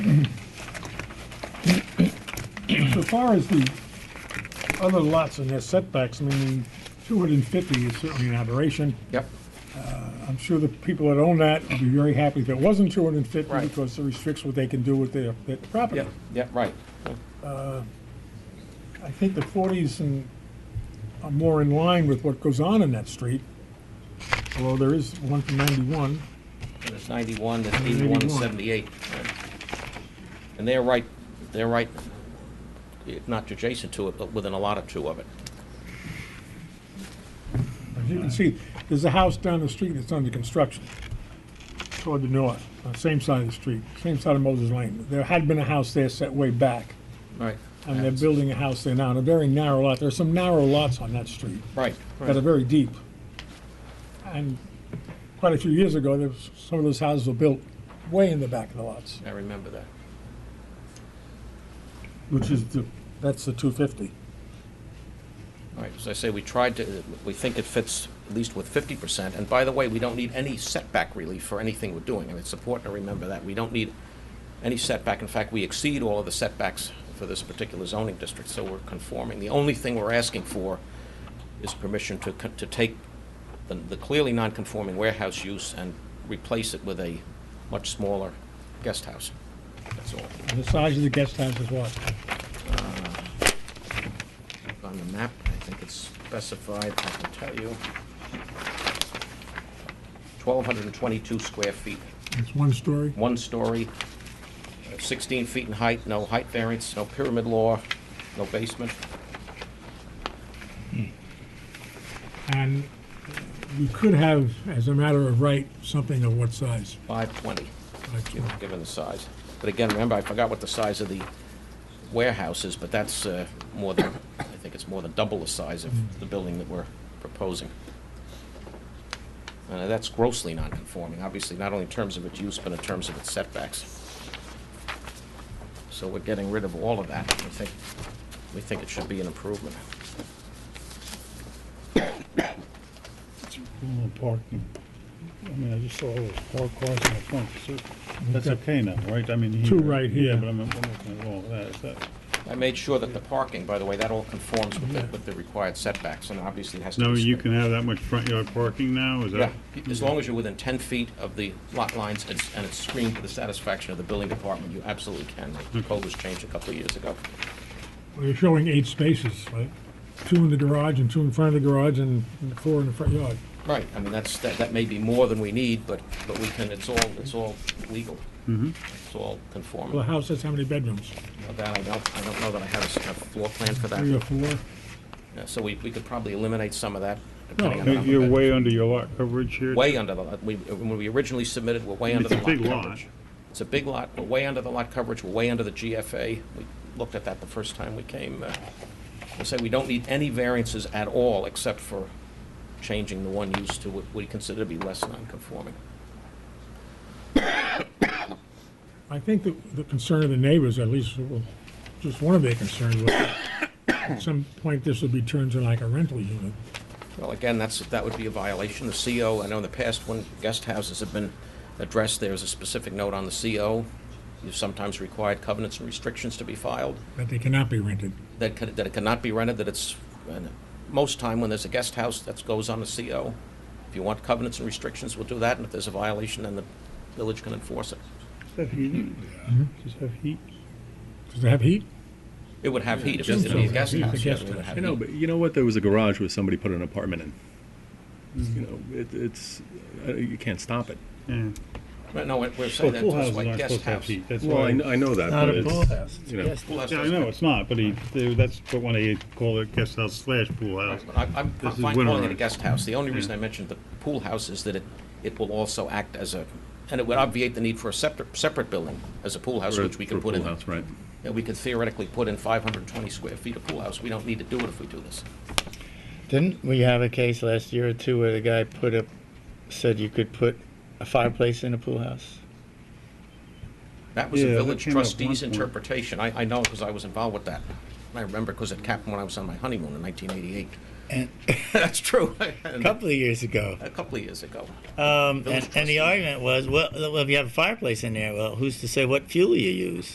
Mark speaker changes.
Speaker 1: So far as the other lots and their setbacks, I mean, the 250 is certainly an aberration.
Speaker 2: Yep.
Speaker 1: I'm sure the people that own that would be very happy if it wasn't 250
Speaker 2: Right.
Speaker 1: because it restricts what they can do with their, their property.
Speaker 2: Yep, yep, right.
Speaker 1: I think the 40s and are more in line with what goes on in that street, although there is one from 91.
Speaker 2: There's 91, there's 81, and
Speaker 1: 81.
Speaker 2: 78. right. And they're right, they're right, eh, not adjacent to it, but within a lot or two of it.
Speaker 1: As you can see, there's a house down the street that's under construction toward the north, on the same side of the street, same side of Moses Lane. There had been a house there set way back,
Speaker 2: Right.
Speaker 1: and they're building a house there now, and a very narrow lot. There are some narrow lots on that street
Speaker 2: Right,
Speaker 1: that are very deep. And quite a few years ago, there was, some of those houses were built way in the back of the lots,
Speaker 2: I remember that.
Speaker 1: which is the, that's the 250.
Speaker 2: All right, as I say, we tried to, we think it fits at least with 50%. And by the way, we don't need any setback relief for anything we're doing, and it's important to remember that. We don't need any setback. In fact, we exceed all of the setbacks for this particular zoning district, so we're conforming. The only thing we're asking for is permission to, co- to take the- the clearly non-conforming warehouse use and replace it with a much smaller guest house. That's all.
Speaker 1: And the size of the guest house is what?
Speaker 2: on the map, I think it's specified, I can tell you. 1,222 square feet,
Speaker 1: It's one story?
Speaker 2: one story, uh, 16 feet in height, no height variance, no pyramid law, no basement.
Speaker 1: And you could have, as a matter of right, something of what size?
Speaker 2: 520,
Speaker 1: Like, you know,
Speaker 2: given the size. But again, remember, I forgot what the size of the warehouse is, but that's uh, more than, I think it's more than double the size of the building that we're proposing. And that's grossly non-conforming, obviously, not only in terms of its use, but in terms of its setbacks. So we're getting rid of all of that. We think, we think it should be an improvement.
Speaker 3: Well, Parking, I mean, I just saw all those parked cars in the front, so that's okay now, Mm-hmm. right? I mean.
Speaker 1: Two right here.
Speaker 3: Yeah, but I'm, I'm looking at all that, is that,
Speaker 2: I made sure that the parking, by the way, that all conforms with the, with the required setbacks, and obviously it has to be...
Speaker 3: now you
Speaker 2: screened.
Speaker 3: can have that much front yard parking now, is
Speaker 2: Yeah,
Speaker 3: that?
Speaker 2: as long as you're within 10 feet of the lot lines and it's- and it's screened to the satisfaction of the building department, you absolutely can. The code was changed a couple of years ago.
Speaker 1: well, You're showing eight spaces, right? Two in the garage and two in front of the garage and four in the front yard.
Speaker 2: Right, I mean, that's, that that may be more than we need, but, but we can, it's all, it's all legal. It's all
Speaker 1: Well, the
Speaker 2: conforming.
Speaker 1: house has how many bedrooms?
Speaker 2: Now That, I don't, I don't know that I have a s- a floor plan for
Speaker 1: Three or
Speaker 2: that.
Speaker 1: four?
Speaker 2: Yeah, So we, we could probably eliminate some of that.
Speaker 1: No,
Speaker 2: depending on the
Speaker 3: You're
Speaker 2: number
Speaker 3: you're
Speaker 2: of
Speaker 3: way under your lot coverage here.
Speaker 2: bed- Way under the, lot. we, when we originally submitted, we're way under
Speaker 3: It's
Speaker 2: the
Speaker 3: a
Speaker 2: lot
Speaker 3: big lot.
Speaker 2: coverage. It's a big lot, we're way under the lot coverage, we're way under the GFA. We looked at that the first time we came. uh, We say we don't need any variances at all, except for changing the one use to what we consider to be less non-conforming.
Speaker 1: I think the, the concern of the neighbors, at least, well, just one of their concerns was at some point this would be turned into like a rental unit.
Speaker 2: Well, again, that's, that would be a violation. The CO, I know in the past, when guest houses have been addressed, there's a specific note on the CO. You've sometimes required covenants and restrictions to be filed,
Speaker 1: That they cannot be rented.
Speaker 2: that can- that it cannot be rented, that it's, and most time when there's a guest house, that goes on the CO. If you want covenants and restrictions, we'll do that, and if there's a violation, then the village can enforce it.
Speaker 3: Does that heat? Does that heat?
Speaker 1: Does it have heat?
Speaker 2: It would have heat, if it's it'd be a guest
Speaker 1: It's a
Speaker 2: house. yeah,
Speaker 1: guest
Speaker 2: it would have
Speaker 4: I know,
Speaker 2: heat.
Speaker 4: but you know what? There was a garage where somebody put an apartment in. You know, it, it's uh, you can't stop it.
Speaker 3: Yeah.
Speaker 2: But No, we're saying
Speaker 3: Well,
Speaker 2: that,
Speaker 3: pool
Speaker 2: that's
Speaker 3: houses
Speaker 2: why
Speaker 3: aren't
Speaker 2: guest
Speaker 3: supposed to have
Speaker 2: house.
Speaker 3: heat, that's
Speaker 4: Well, I,
Speaker 3: why.
Speaker 4: kn- I know that,
Speaker 5: Not
Speaker 4: but
Speaker 5: a pool
Speaker 4: it's,
Speaker 5: house. It's
Speaker 4: you know,
Speaker 5: guest
Speaker 2: Pool house
Speaker 3: Yeah, I
Speaker 2: doesn't-
Speaker 3: know, it's not, but he, they- that's what when they call it guest house slash pool house.
Speaker 2: I- I'm
Speaker 3: This is
Speaker 2: fine calling it a
Speaker 3: winterized.
Speaker 2: guest house. The only reason I mentioned the pool house is that it, it will also act as a, and it would obviate the need for a separate, separate building as a pool house,
Speaker 4: for a-
Speaker 2: which we
Speaker 4: for a
Speaker 2: could put
Speaker 4: pool
Speaker 2: in.
Speaker 4: house, right?
Speaker 2: Yeah, we could theoretically put in 520 square feet of pool house. We don't need to do it if we do this.
Speaker 5: Didn't we have a case last year or two where the guy put up, said you could put a fireplace in a pool house?
Speaker 2: That was the
Speaker 3: Yeah, that
Speaker 2: village
Speaker 3: came up at one
Speaker 2: trustee's
Speaker 3: point.
Speaker 2: interpretation. I, I know because I was involved with that. I remember because it happened when I was on my honeymoon in 1988.
Speaker 5: And
Speaker 2: That's true.
Speaker 5: a
Speaker 2: And
Speaker 5: couple of years ago.
Speaker 2: A couple of years ago.
Speaker 5: Um,
Speaker 2: Village
Speaker 5: and, and
Speaker 2: trustee.
Speaker 5: the argument was, well, well, if you have a fireplace in there, well, who's to say what fuel you use?